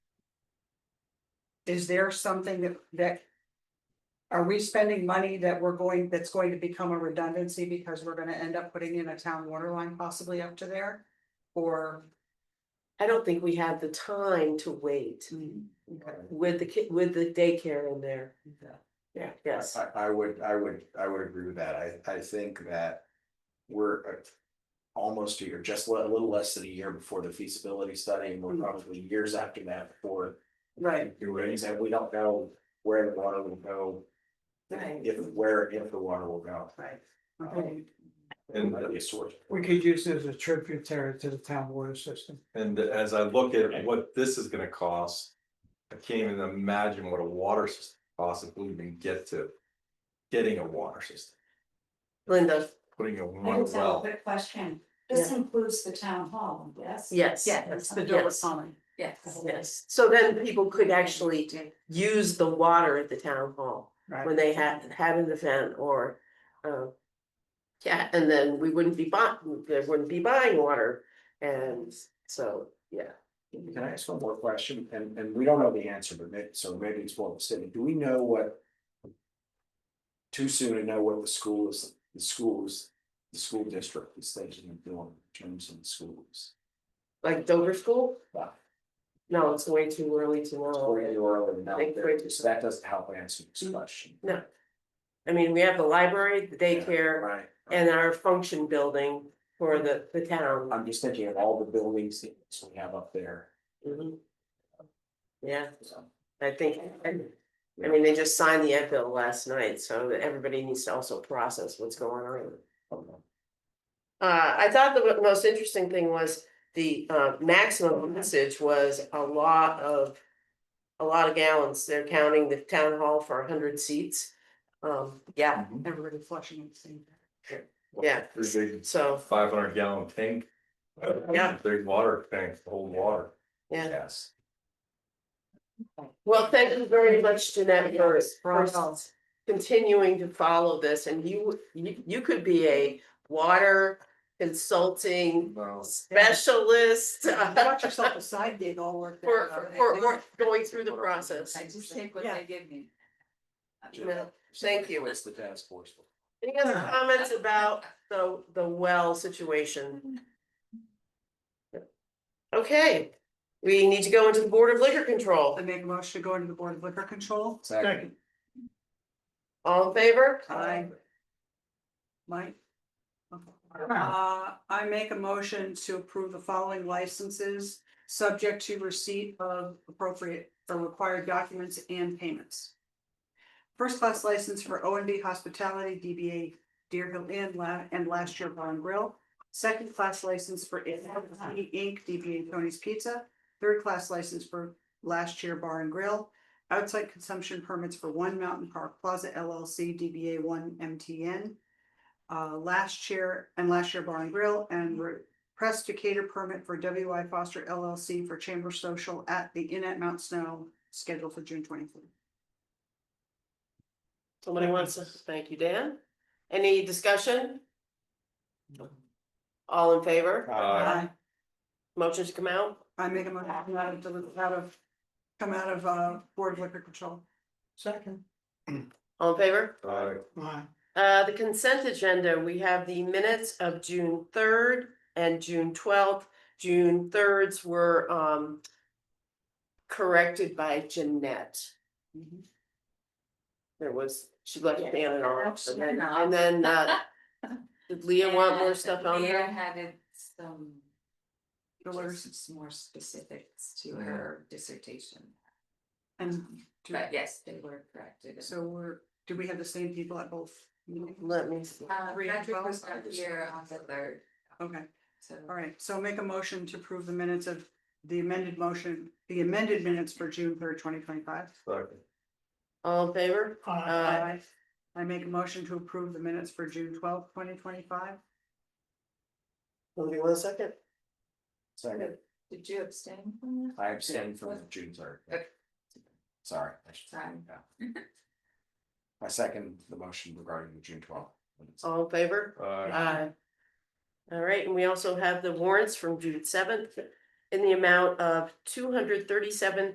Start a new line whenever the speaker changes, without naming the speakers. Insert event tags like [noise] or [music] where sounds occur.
is there something that, that? Are we spending money that we're going, that's going to become a redundancy because we're gonna end up putting in a town water line possibly up to there? Or?
I don't think we have the time to wait with the ki- with the daycare in there. Yeah, yes,
I, I would, I would, I would agree with that. I, I think that we're uh, almost a year, just a little less than a year before the feasibility study, and we're probably years after that before
Right,
do it, and we don't know where the water will go,
right,
if, where, if the water will go.
right. Okay.
And,
That'd be a source.
Um, We could use it as a tributary to the town water system.
and as I look at what this is gonna cost, I can't even imagine what a water system costs if we even get to. Getting a water system,
Linda,
putting a
I
one
just have a
well,
quick question. This
Yeah.
includes the town hall, yes?
yes.
Yeah,
That's the door
Yes.
common.
Yes.
Yes, so then people could actually use the water at the town hall when
Right,
they had had an event or. um, Yeah, and then we wouldn't be buying, there wouldn't be buying water and so, yeah.
Can I ask one more question? And, and we don't know the answer, but maybe, so maybe it's well city. Do we know what? Too soon to know what the school is, the schools, the school district is thinking of doing in terms of the schools.
Like Dover School?
Yeah.
No, it's way too early to
Or
know.
in Orland, now,
Big bridges.
so that doesn't help answer this question.
No. I mean, we have the library, the daycare,
Right.
and our function building for the the town.
I'm just thinking of all the buildings that we have up there.
Mhm. Yeah,
so.
I think, I I mean, they just signed the Ed bill last night, so that everybody needs to also process what's going on. Uh, I thought the most interesting thing was the uh maximum usage was a lot of. A lot of gallons, they're counting the town hall for hundred seats, um, yeah,
everybody flushing at the same. time.
yeah,
Big
so,
Mm-hmm. five hundred gallon tank.
Yeah.
Big water tank, hold water.
yeah.
Yes.
Well, thank you very much, Jeanette, for for
Bravo.
continuing to follow this, and you you you could be a water consulting
No.
specialist. uh,
[laughs] Watch yourself a side gig all worked
For
out.
for for for going through the process.
I just take what
Yeah.
they give me.
No, Thank you.
What's the task force?
Any other comments about the, the well situation? Okay, we need to go into the Board of Liquor Control.
I make a motion to go into the Board of Liquor Control.
Second.
All in favor?
Aye. Mike? Uh, I make a motion to approve the following licenses, subject to receipt of appropriate or required documents and payments. First class license for O and B Hospitality, DBA Deer Hill Inn La- and Last Year Bar and Grill. Second class license for It Inc., DBA Tony's Pizza. Third class license for Last Year Bar and Grill. Outside consumption permits for One Mountain Park Plaza LLC, DBA One MTN. Uh, Last Chair and Last Year Bar and Grill and Press to Cater Permit for WI Foster LLC for Chamber Social at the Inn at Mount Snow, scheduled for June twenty-fourth.
Somebody wants to, thank you, Dan. Any discussion? All in favor?
Uh,
Motion to come out?
I make a motion to come out of, deli- out of, come out of, uh, Board of Liquor Control.
Second.
All in favor?
uh,
Uh, the consent agenda, we have the minutes of June third and June twelfth. June thirds were, um, corrected by Jeanette.
Mm-hmm.
There was, she left it down in our office, and then, and then, uh,
[laughs]
did Leah want more stuff on
Leah
there?
had some,
Dollars.
just some more specifics to her dissertation.
And, do-
But yes, they were corrected.
so we're, do we have the same people at both? meetings?
Let me see.
Uh,
Three and
Patrick was
twelve.
not here on the third,
Okay.
so.
All right, so make a motion to approve the minutes of the amended motion, the amended minutes for June third, twenty twenty five.
second.
All in favor? Uh,
I make a motion to approve the minutes for June twelfth, twenty twenty five.
hold on one second.
Second.
Did you abstain from that?
I abstained from the June third.
Okay.
Sorry. I should-
Sorry.
yeah. I second the motion regarding the June twelfth.
All in favor?
Uh,
Aye. All right, and we also have the warrants from June seventh in the amount of two hundred thirty-seven